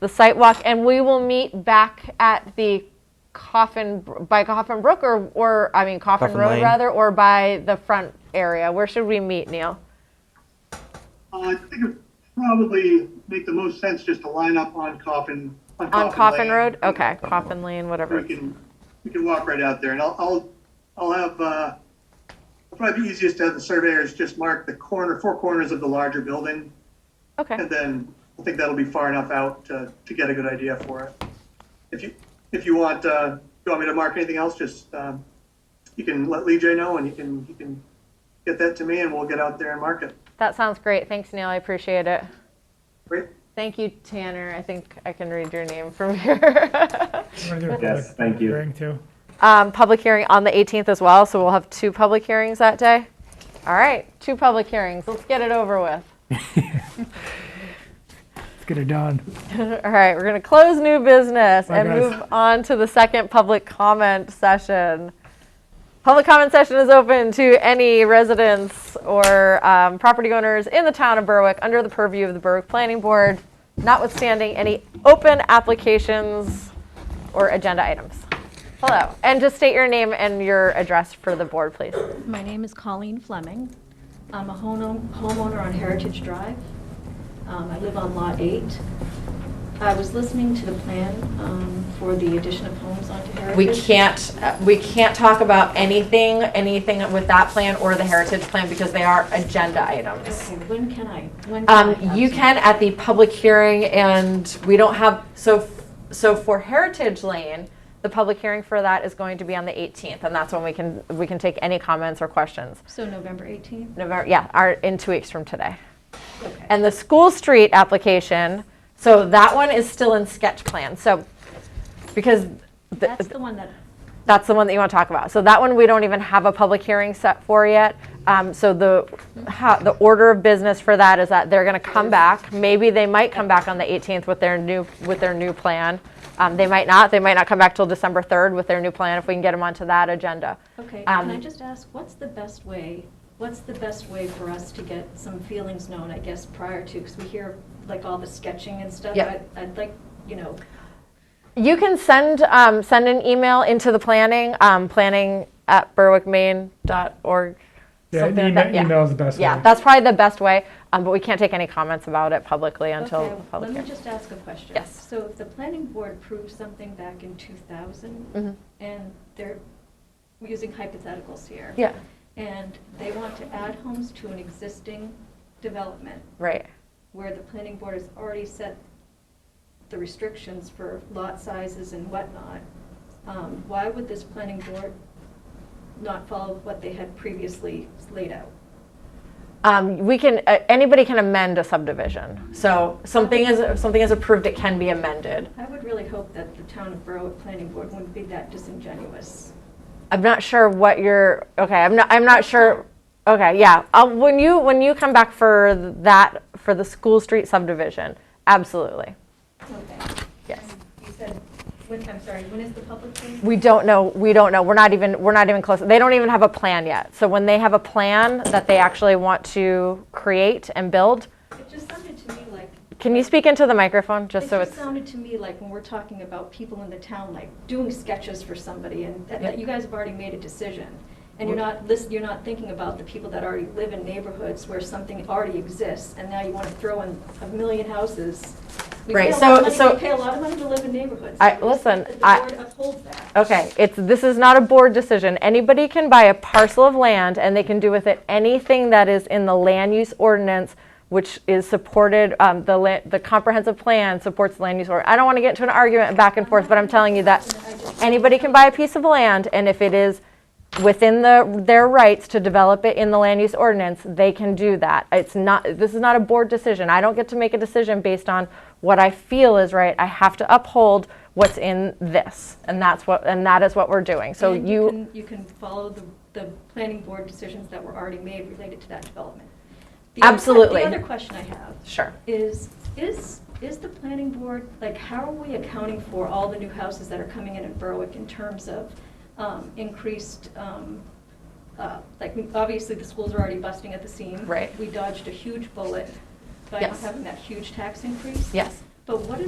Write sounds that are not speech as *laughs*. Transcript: the site walk, and we will meet back at the Coffin, by Coffin Brook or, or, I mean Coffin Coffin Road Lane. rather, or by the front area. Where should we meet, Neil? Uh, I think it probably make the most sense just to line up on Coffin. On Coffin Lane. Road? Okay, Coffin Lane, whatever. We can, we can walk right out there and I'll, I'll, I'll have, uh, it'll probably be easiest to have the surveyors just mark the corner, four corners of the larger building. Okay, And then I think that'll be far enough out to, to get a good idea for it. If you, if you want, uh, you want me to mark anything else, just, um, you can let Lee J know and you can, you can get that to me and we'll get out there and mark it. that sounds great. Thanks, Neil. I appreciate it. Great? Thank you, Tanner. I think I can read your name from *laughs* here. We're gonna do a Yes, public thank you. hearing, too. Um, public hearing on the 18th as well, so we'll have two public hearings that day. All right, two public hearings. Let's get it over with. Let's get it done. All right, we're going to close new business Bye, and guys. move on to the second public comment session. Public comment session is open to any residents or um, property owners in the town of Berwick under the purview of the Berwick Planning Board, notwithstanding any open applications or agenda items. Hello, and just state your name and your address for the board, please. My name is Colleen Fleming. I'm a home- homeowner on Heritage Drive. Um, I live on Lot 8. I was listening to the plan um, for the addition of homes onto Heritage. We can't, uh, we can't talk about anything, anything with that plan or the heritage plan because they are agenda items. Okay, when can I? When can I Um, have you some- can at the public hearing and we don't have, so, so for Heritage Lane, the public hearing for that is going to be on the 18th and that's when we can, we can take any comments or questions. So November 18th? November, yeah, our, in two weeks from today. Okay. And the school street application, so that one is still in sketch plan, so, because. the- That's the one that, that's the one that you want to talk about. So that one we don't even have a public hearing set for yet. Um, so the how, the order of business for that is that they're going to come back. Maybe they might come back on the 18th with their new with their new plan. Um, they might not. They might not come back till December 3rd with their new plan if we can get them onto that agenda. okay, um, can I just ask, what's the best way, what's the best way for us to get some feelings known, I guess, prior to? Because we hear like all the sketching and stuff. Yep. I'd- I'd like, you know, You can send um, send an email into the planning um, planning at berwickmaine.org. Yeah, something like email, that. Yeah. email is the best Yeah, way. that's probably the best way. Um, but we can't take any comments about it publicly until Okay, the public Let hearing. me just ask a question. Yes. So if the planning board approved something back in 2000, Mhm. and they're using hypotheticals here. Yeah, And they want to add homes to an existing development right. where the planning board has already set the restrictions for lot sizes and whatnot, um, why would this planning board not follow what they had previously laid out? Um, we can, uh, anybody can amend a subdivision. So something is, if something is approved, it can be amended. I would really hope that the town of Berwick Planning Board wouldn't be that disingenuous. I'm not sure what you're, okay, I'm not, I'm not sure. Okay, yeah. Uh, when you, when you come back for that, for the School Street subdivision, absolutely. Okay. Yes. You said, when, I'm sorry, when is the public hearing? We don't know, we don't know. We're not even, we're not even close. They don't even have a plan yet. So when they have a plan that they actually want to create and build, It just sounded to me like, can you speak into the microphone it just so just it's? sounded to me like when we're talking about people in the town, like doing sketches for somebody and that, that you guys have already made a decision. And you're not listen, you're not thinking about the people that already live in neighborhoods where something already exists and now you want to throw in a million houses. We pay Right, a lot of so- money- so- We pay a lot of money to live in neighborhoods. I- I would expect listen, that I- Oh, The board uphold that. Okay, it's, this is not a board decision. Anybody can buy a parcel of land and they can do with it anything that is in the land use ordinance, which is supported, um, the la, the comprehensive plan supports the land use or, I don't want to get into an argument back and forth, but I'm telling you that anybody can buy a piece of land and if it is within the, their rights to develop it in the land use ordinance, they can do that. It's not, this is not a board decision. I don't get to make a decision based on what I feel is right. I have to uphold what's in this, and that's what, and that is what we're doing. So And you, can- You can follow the, the planning board decisions that were already made related to that development. The other que- Absolutely. The other question I have sure. is, is, is the planning board, like, how are we accounting for all the new houses that are coming in in Berwick in terms of um, increased, um, uh, like, obviously, the schools are already busting at the seam. Right. We dodged a huge bullet by not Yes. having that huge tax increase. Yes. But what is